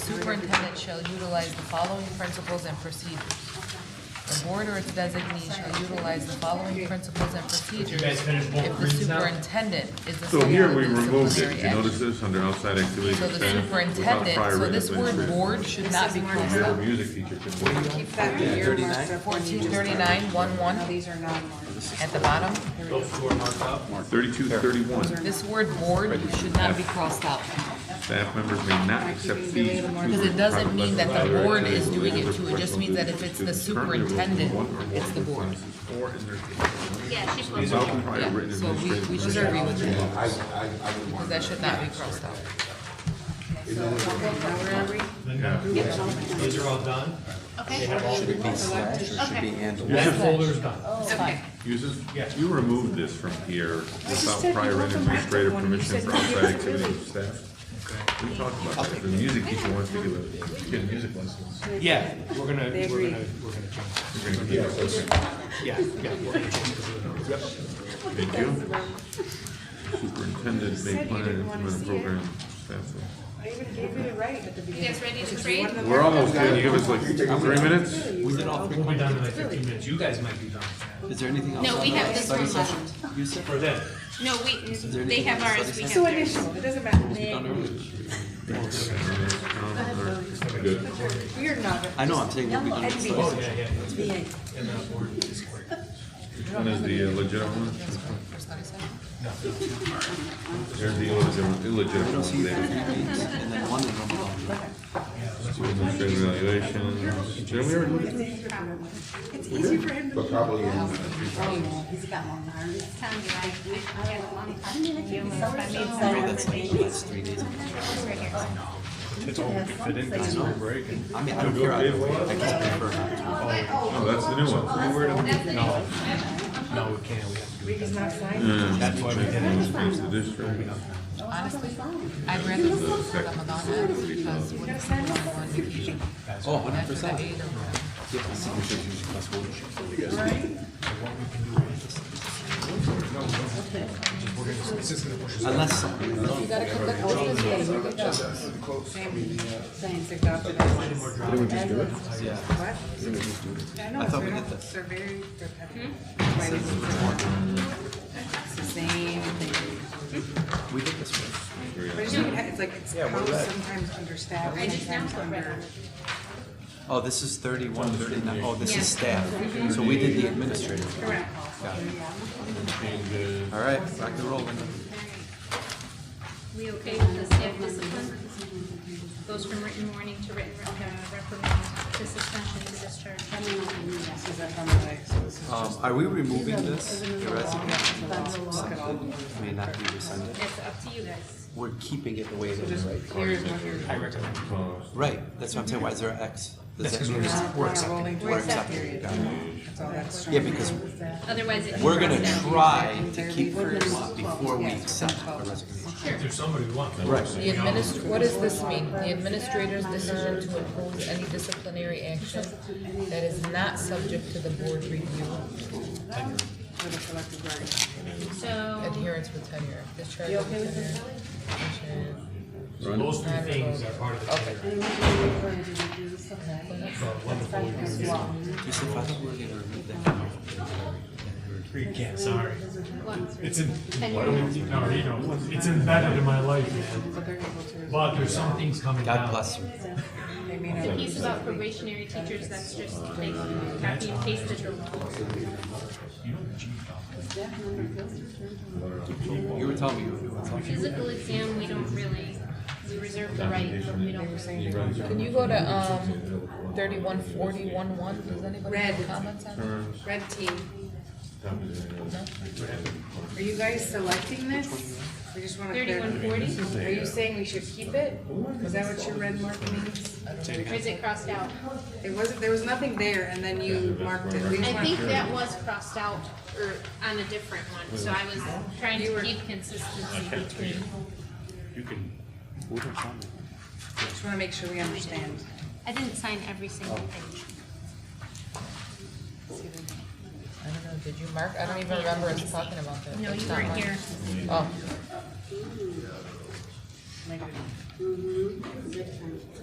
superintendent shall utilize the following principles and procedures. The board or its designee shall utilize the following principles and procedures. guys finish both If the reads now? superintendent is the. So here sole we removed it, disciplinary did you notice action. this, under outside activities So of the staff, without superintendent, prior so written this word administration. board should not be crossed Your out. music teacher can wait. Keep that in your marks up when you Fourteen just- thirty-nine, one one, No, these are not marked. at the bottom, Those two are marked up. Thirty-two thirty-one, this word board should not be crossed out. staff members may not accept fees. for tutoring, Because it doesn't mean that the private lessons, board other is doing it too, activities, it just means that if it's the students currently enrolled in superintendent, one or more it's the of board. classes or in their- Yeah, she's supposed to. Without prior Yeah, written so we, administration. we should agree with that. Because that should not be crossed out. Now where are we? Yeah. These are all done. Okay. Selected. Okay. That folder's done. Okay. Uses, Yes. you removed this from here without prior written administrative permission for outside activities of staff. We talked about that, the music teacher wants to give a kid music lessons. Yeah, we're gonna, we're gonna, we're They agree. gonna change that. You're gonna give us- Yeah, yeah, we're gonna change it. Thank you. Superintendent may plan and implement a program. staff will- I even gave you the right at the You beginning. guys ready to trade? We're almost done, you give us like three minutes? We did all three. We'll be done in like fifteen minutes. You guys might be done with Is there anything else? No, on we the have this study one session? left. You that. said, For them. No, we, they have ours, we So have theirs. initial, it doesn't done matter. earlier. Good. You're not. I know, I'm saying we'll be done. with study Oh, session. yeah, yeah. that's good. Yeah. And then we're just working. One is the uh, legitimate one, For study session? there's the illegitimate illegitimate one. They- And then one of them. School administrative evaluations, did we already look at this? It's easy for him to. Probably. He's got long arms. I mean, I don't care. either way. I just prefer not to. Oh, that's the new one. No, no, we can't. We have to do it. He's not signed. That's why we did it. Space the district. Honestly, I'd rather listen to Ramadan ads because what if someone wants to eat Oh, hundred after percent. they ate or Unless something. It's adopted as is. Yeah. What? I know, thought they're we did not- that. they're very repetitive. Why they do that. It's the same thing. We did this one. But it's not- it's like, it's how sometimes understaffed, I just now sometimes put red under. on it. Oh, this is thirty-one, thirty-nine. Oh, this is staff. So we did the administrative. Correct. All right, rock and roll. Linda. We okay with the staff discipline? Goes from written warning to written uh, reprimand to suspension to discharge. This is up on the way, so this is Um, are we removing this? The resignation or something may not be rescinded. It's up to you guys. We're keeping it the way it is. just, here's what you're. I recommend. Right, that's what I'm saying. Why is there an X? Does That's that because mean- we're, we're accepting. Rolling We're towards that accepting. period. That's all that's. Yeah, because Otherwise, it. we're gonna try to keep her in law before we accept a resignation. If there's somebody who wants. Right. The administr, what does this mean? The administrator's decision to impose any disciplinary action that is not subject to the board review, For the collective bargaining. So, adherence with tenure, discharge of tenure. So Those two things are part of the. Okay. You said five, we're gonna remove that. You can't, sorry. It's in, no, you know, it's embedded in my life, man. But they're able to, But there's some things coming down. God bless her. they may not. the piece about probationary teachers, that's just like copy and pasted the rules. You were telling me you were doing something. Physical exam, we don't really, we reserve the right, but we don't really. Can you go to, um, thirty-one forty, one one, does anybody have comments on that? Red team. Are you guys selecting this? We just wanna. clarify. Thirty-one forty, Are you saying we should keep it? Is that what your red mark means? or is it crossed out? It wasn't, there was nothing there, and then you marked it. We just I marked think it. that was crossed out, or on a different one, so I was trying to keep consistency between. Just wanna make sure we understand. I didn't sign every single thing. I don't know, did you mark? I don't even remember us talking about that. No, It's you not weren't mine. Oh. here. Like,